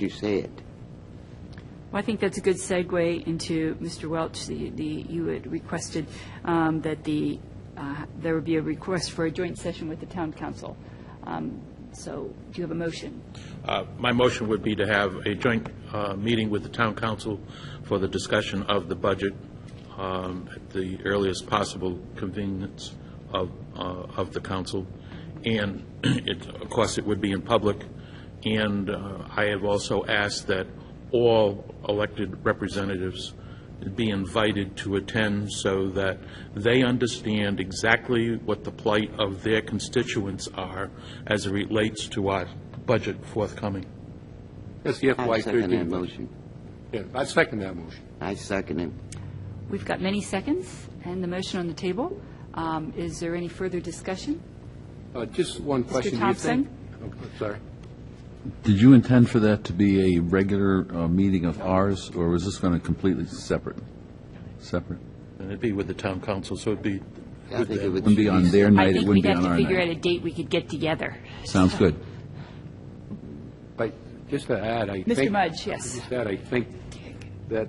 you said. Well, I think that's a good segue into Mr. Welch, the, the, you had requested um, that the, uh, there would be a request for a joint session with the town council. Um, So do you have a motion? Uh, My motion would be to have a joint uh, meeting with the town council for the discussion of the budget um, at the earliest possible convenience of, uh, of the council. And it, of course, it would be in public. And uh, I have also asked that all elected representatives be invited to attend so that they understand exactly what the plight of their constituents are as it relates to our budget forthcoming. That's the I FY second that thirteen motion. Yeah, I second that motion. I second it. We've got many seconds and the motion on the table. Um, Is there any further discussion? Uh, Just one question. Do you Thompson? think- Oh, Sorry. Did you intend for that to be a regular uh, meeting of ours, or was this going to completely separate? Separate? And it'd be with the town council, so it'd be I think it would Wouldn't be on their I night, it think wouldn't be we'd have on to our figure out a night. date we could get together. Sounds good. But just to add, I think... Mr. Mudge, yes. Just that, I think that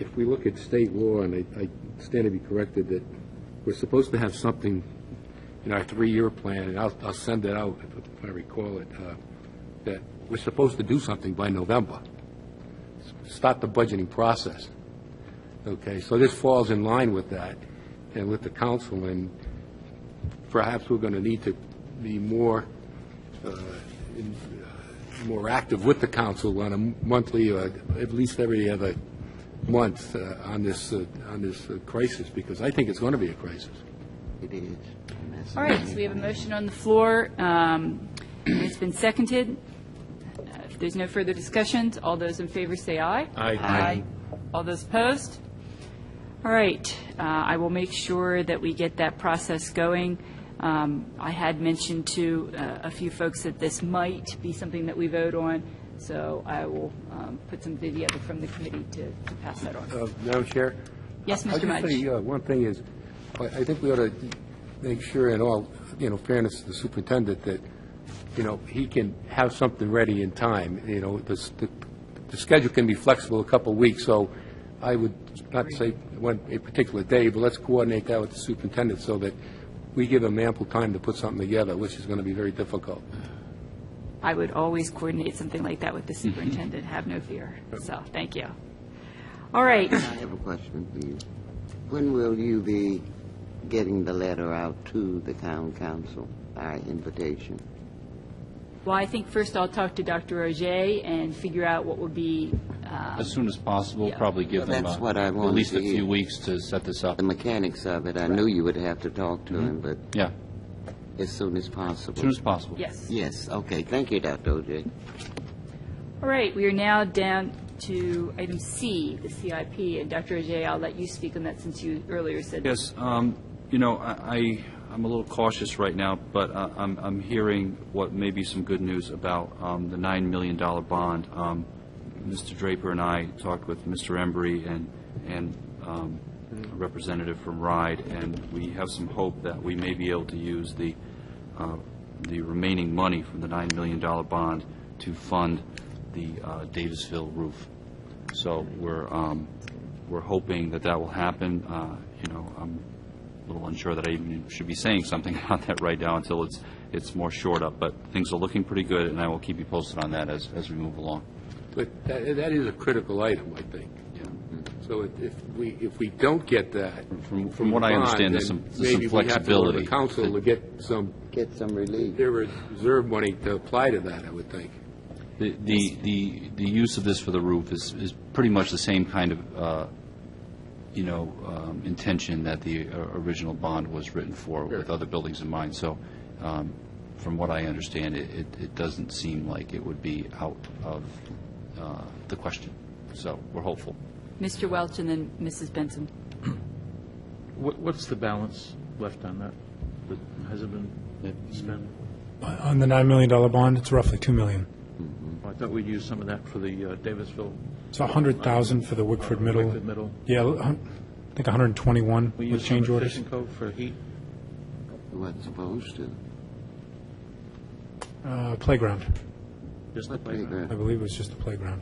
if we look at state law, and I I stand to be corrected, that we're supposed to have something in our three-year plan, and I'll, I'll send it out if- if I recall it, uh, that we're supposed to do something by November. Start the budgeting process. Okay, so this falls in line with that and with the council, and perhaps we're going to need to be more more active with the council on a monthly, uh, at least every other month uh, on this, uh, on this uh, crisis, because I think it's going to be a crisis. It is. All right, so we have a motion on the floor. Um, It's been seconded. Uh, If there's no further discussions, all those in favor say aye. Aye. Aye. All those opposed? All right, uh, I will make sure that we get that process going. Um, I had mentioned to uh, a few folks that this might be something that we vote on, so I will um, put something together from the committee to to pass that on. Uh, Madam Chair? Yes, Mr. I just say, Mudge? uh, one thing is, I I think we ought to make sure in all, you know, fairness to the superintendent that, you know, he can have something ready in time, you know, the, s- the- the schedule can be flexible a couple of weeks, so I would not say one, a particular day, but let's coordinate that with the superintendent so that we give him ample time to put something together, which is going to be very difficult. I would always coordinate something like that with the superintendent, have no fear. So, thank you. All right, I have a question for you. When will you be getting the letter out to the town council, our invitation? well, I think first I'll talk to Dr. Ogier and figure out what would be, uh, As soon as possible, probably give them That's uh, what I at wanted least to a hear. few weeks to set this up. The mechanics of it, I knew you would have to talk to him, but Yeah, as soon as as possible. soon as possible. yes. Yes, okay, thank you, Dr. OJ. All right, we are now down to item C, the CIP, and Dr. Ogier, I'll let you speak on that since you earlier said. Yes, um, you know, I, I- I'm a little cautious right now, but uh, I'm, I'm hearing what may be some good news about um, the $9 million bond. Um, Mr. Draper and I talked with Mr. Embry and, and um, a representative from RIDE, and we have some hope that we may be able to use the, uh, the remaining money from the $9 million bond to fund the uh, Davisville roof. So we're, um, we're hoping that that will happen. Uh, You know, I'm a little unsure that I even should be saying something about that right now until it's, it's more shored up, but things are looking pretty good, and I will keep you posted on that as, as we move along. But that, that is a critical item, I think. So if- if we, if we don't get that. From- from what I understand, there's bond, some- then some Maybe we have to go to the flexibility. council to get some, Get some relief. their reserve money to apply to that, I would think. The, the, the the use of this for the roof is, is pretty much the same kind of, uh, you know, um, intention that the uh, original bond was written for with other buildings in mind. So um, from what I understand, it, it- it doesn't seem like it would be out of uh, the question. So we're hopeful. Mr. Welch and then Mrs. Benson. What- What's the balance left on that that hasn't been spent? On the $9 million bond, it's roughly 2 million. Oh, I thought we'd use some of that for the uh, Davisville. It's 100,000 for the Wickford Middle. Wickford Middle. Yeah, l- hun- I think 121 We with use some change of orders. Fishing Cove for heat? We wasn't supposed to. Uh, Playground. Just the What playground. playground? I believe it was just the playground.